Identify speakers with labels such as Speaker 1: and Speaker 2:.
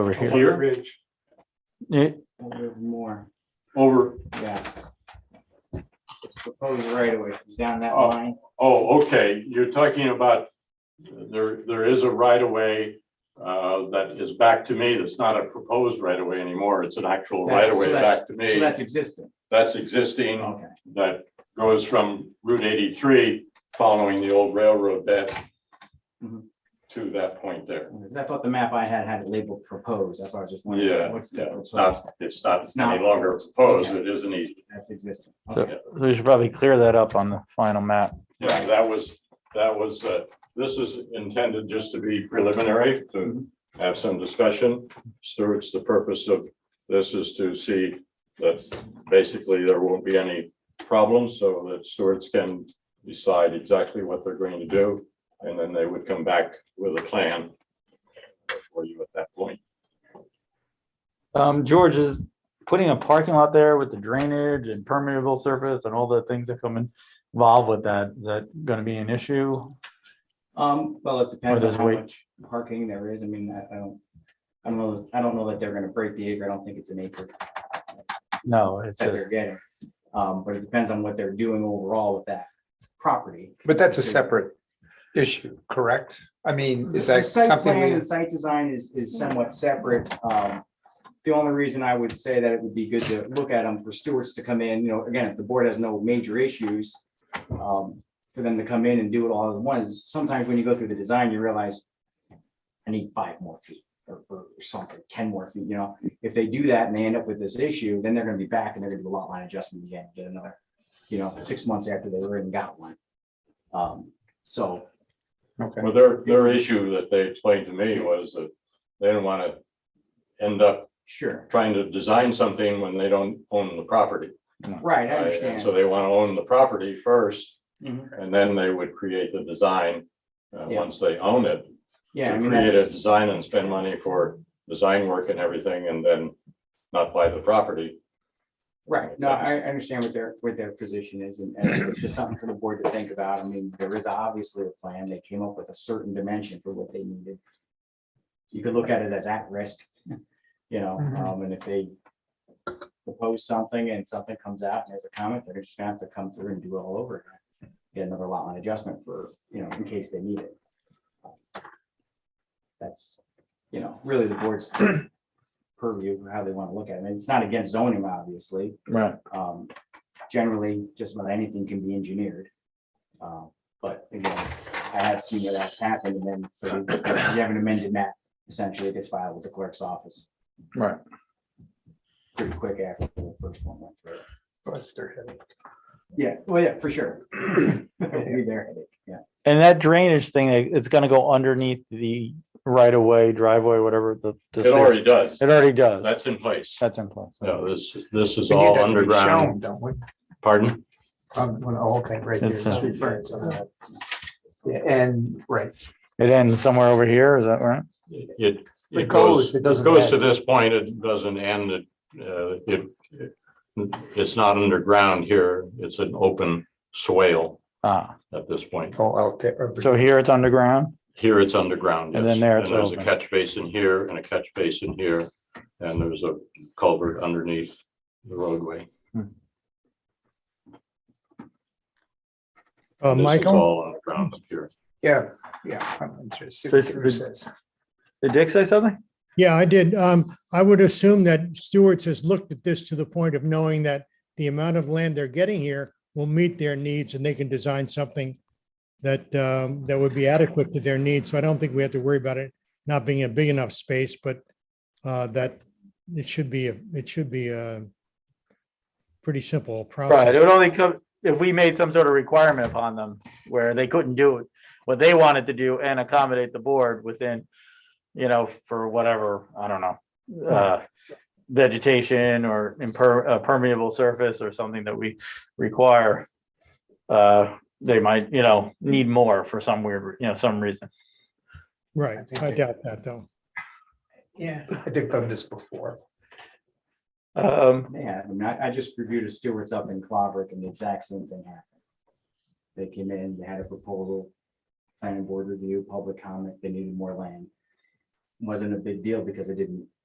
Speaker 1: over here.
Speaker 2: Here?
Speaker 3: Ridge,
Speaker 1: Yeah,
Speaker 4: A little more,
Speaker 2: Over,
Speaker 4: yeah. It's proposed right away, down that
Speaker 2: Oh.
Speaker 4: line.
Speaker 2: oh, okay, you're talking about, there, there is a right of way uh, that is back to me, that's not a proposed right of way anymore, it's an actual right
Speaker 4: That's-
Speaker 2: of
Speaker 4: so
Speaker 2: way
Speaker 4: that's-
Speaker 2: back to
Speaker 4: So
Speaker 2: me.
Speaker 4: that's Oh. existing,
Speaker 2: That's existing,
Speaker 4: okay.
Speaker 2: that goes from Route eighty-three, following the old railroad bed
Speaker 4: Mhm.
Speaker 2: to that point there.
Speaker 4: I thought the map I had had it labeled proposed, that's why I was just wondering.
Speaker 2: Yeah,
Speaker 4: What's
Speaker 2: yeah,
Speaker 4: the,
Speaker 2: It's not, it's not
Speaker 4: It's not-
Speaker 2: any longer proposed, it e, is an easement.
Speaker 4: that's existing.
Speaker 1: so
Speaker 4: Okay.
Speaker 1: We should probably clear that up on the final map.
Speaker 2: Yeah, that was, that was, uh, this is intended just to be preliminary, to have some discussion. So it's the purpose of this is to see that basically there won't be any problems, so that stewards can decide exactly what they're going to do, and then they would come back with a plan for you at that point.
Speaker 1: Um, George is putting a parking lot there with the drainage and permeable surface and all the things that come involved with that. Is that gonna be an issue?
Speaker 4: Um, well, it depends on
Speaker 1: there's
Speaker 4: how
Speaker 1: weight.
Speaker 4: much parking there is, I mean, I, I don't, I don't know, I don't know that they're gonna break the acre, I don't think it's an acre
Speaker 1: No, it's
Speaker 4: that
Speaker 1: a
Speaker 4: they're getting. Um, but it depends on what they're doing overall with that property.
Speaker 3: but that's a separate issue, correct? I mean, is
Speaker 4: The
Speaker 3: that
Speaker 4: Site
Speaker 3: something
Speaker 4: plan
Speaker 3: we,
Speaker 4: and site design is, is somewhat separate. Um, The only reason I would say that it would be good to look at them for stewards to come in, you know, again, if the board has no major issues, um, for them to come in and do it all at once, sometimes when you go through the design, you realize I need five more feet or, or something, ten more feet, you know? If they do that and they end up with this issue, then they're gonna be back and they're gonna do a lot line adjustment again, get another, you know, six months after they already got one. Um, So
Speaker 3: okay,
Speaker 2: Well, their, their issue that they explained to me was that they didn't want to end up
Speaker 4: sure,
Speaker 2: trying to design something when they don't own the property.
Speaker 4: right, I
Speaker 2: Right,
Speaker 4: understand.
Speaker 2: and So they want to own the property first,
Speaker 4: Mhm.
Speaker 2: and then they would create the design. uh,
Speaker 4: Yeah.
Speaker 2: once they own it, to
Speaker 4: Yeah, I mean,
Speaker 2: create a
Speaker 4: that's,
Speaker 2: design and spend money for design work and everything, and then not buy the property.
Speaker 4: right, no, I, I understand what their, what their position is, and, and it's just something for the board to think about, I mean, there is obviously a plan, they came up with a certain dimension for what they needed. You could look at it as at risk, you know,
Speaker 3: Mhm.
Speaker 4: um, and if they propose something and something comes out and there's a comment, they're just gonna have to come through and do it all over again. Get another lot line adjustment for, you know, in case they need it. That's, you know, really the board's purview, how they wanna look at it, and it's not against zoning, obviously,
Speaker 1: right.
Speaker 4: um, generally, just about anything can be engineered. Uh, but again, I have seen where that's happened and then, so if you have an amended map, essentially it gets filed with the clerk's office.
Speaker 1: Right.
Speaker 4: Pretty quick after the first one went through.
Speaker 3: What's their headache?
Speaker 4: Yeah, well, yeah, for sure. Be there, yeah.
Speaker 1: And that drainage thing, it- it's gonna go underneath the right of way, driveway, whatever the. the-
Speaker 2: It already does,
Speaker 1: It already does.
Speaker 2: that's in place.
Speaker 1: That's in place.
Speaker 2: No, this, this is
Speaker 3: We need
Speaker 2: all
Speaker 3: that to be
Speaker 2: underground,
Speaker 3: shown, Don't we?
Speaker 2: pardon?
Speaker 3: Um, well, oh, Okay, right here.
Speaker 1: It's, uh,
Speaker 3: Street signs on that. Yeah, And, right,
Speaker 1: It ends somewhere over here, is that right?
Speaker 2: It, it goes,
Speaker 3: It goes, it
Speaker 2: it
Speaker 3: doesn't
Speaker 2: goes to
Speaker 3: end.
Speaker 2: this point, it doesn't end, it, uh, it, it- it's not underground here, it's an open swale
Speaker 1: Ah,
Speaker 2: at this point.
Speaker 3: oh, out there.
Speaker 1: so here it's underground?
Speaker 2: Here it's underground.
Speaker 1: And
Speaker 2: yes.
Speaker 1: then there it's
Speaker 2: And there's a
Speaker 1: open.
Speaker 2: catch basin here and a catch basin here, and there's a culvert underneath the roadway.
Speaker 5: Uh,
Speaker 2: This is
Speaker 5: Michael,
Speaker 2: All underground up here.
Speaker 3: Yeah, yeah, I'm interested.
Speaker 1: So
Speaker 3: what
Speaker 1: it's-
Speaker 3: Drew says.
Speaker 1: Did Dick say something?
Speaker 5: yeah, I did. Um, I would assume that Stewart's has looked at this to the point of knowing that the amount of land they're getting here will meet their needs and they can design something that, um, that would be adequate to their needs. So I don't think we have to worry about it not being a big enough space, but, uh, that it should be, a it should be a pretty simple
Speaker 1: Right, it
Speaker 5: process.
Speaker 1: would only come, if we made some sort of requirement upon them where they couldn't do it, what they wanted to do and accommodate the board within, you know, for whatever, I don't know, uh, vegetation or imper- uh, permeable surface or something that we require. Uh, they might, you know, need more for some weird, re- you know, some reason.
Speaker 5: Right. I doubt that though.
Speaker 3: Yeah, I think I've done this before.
Speaker 1: Um,
Speaker 4: Yeah, I mean, I, I just reviewed a Stewart's up in Claverick and the exact same thing happened. They came in, they had a proposal, planning board review, public comment, they needed more land. wasn't a big deal because it didn't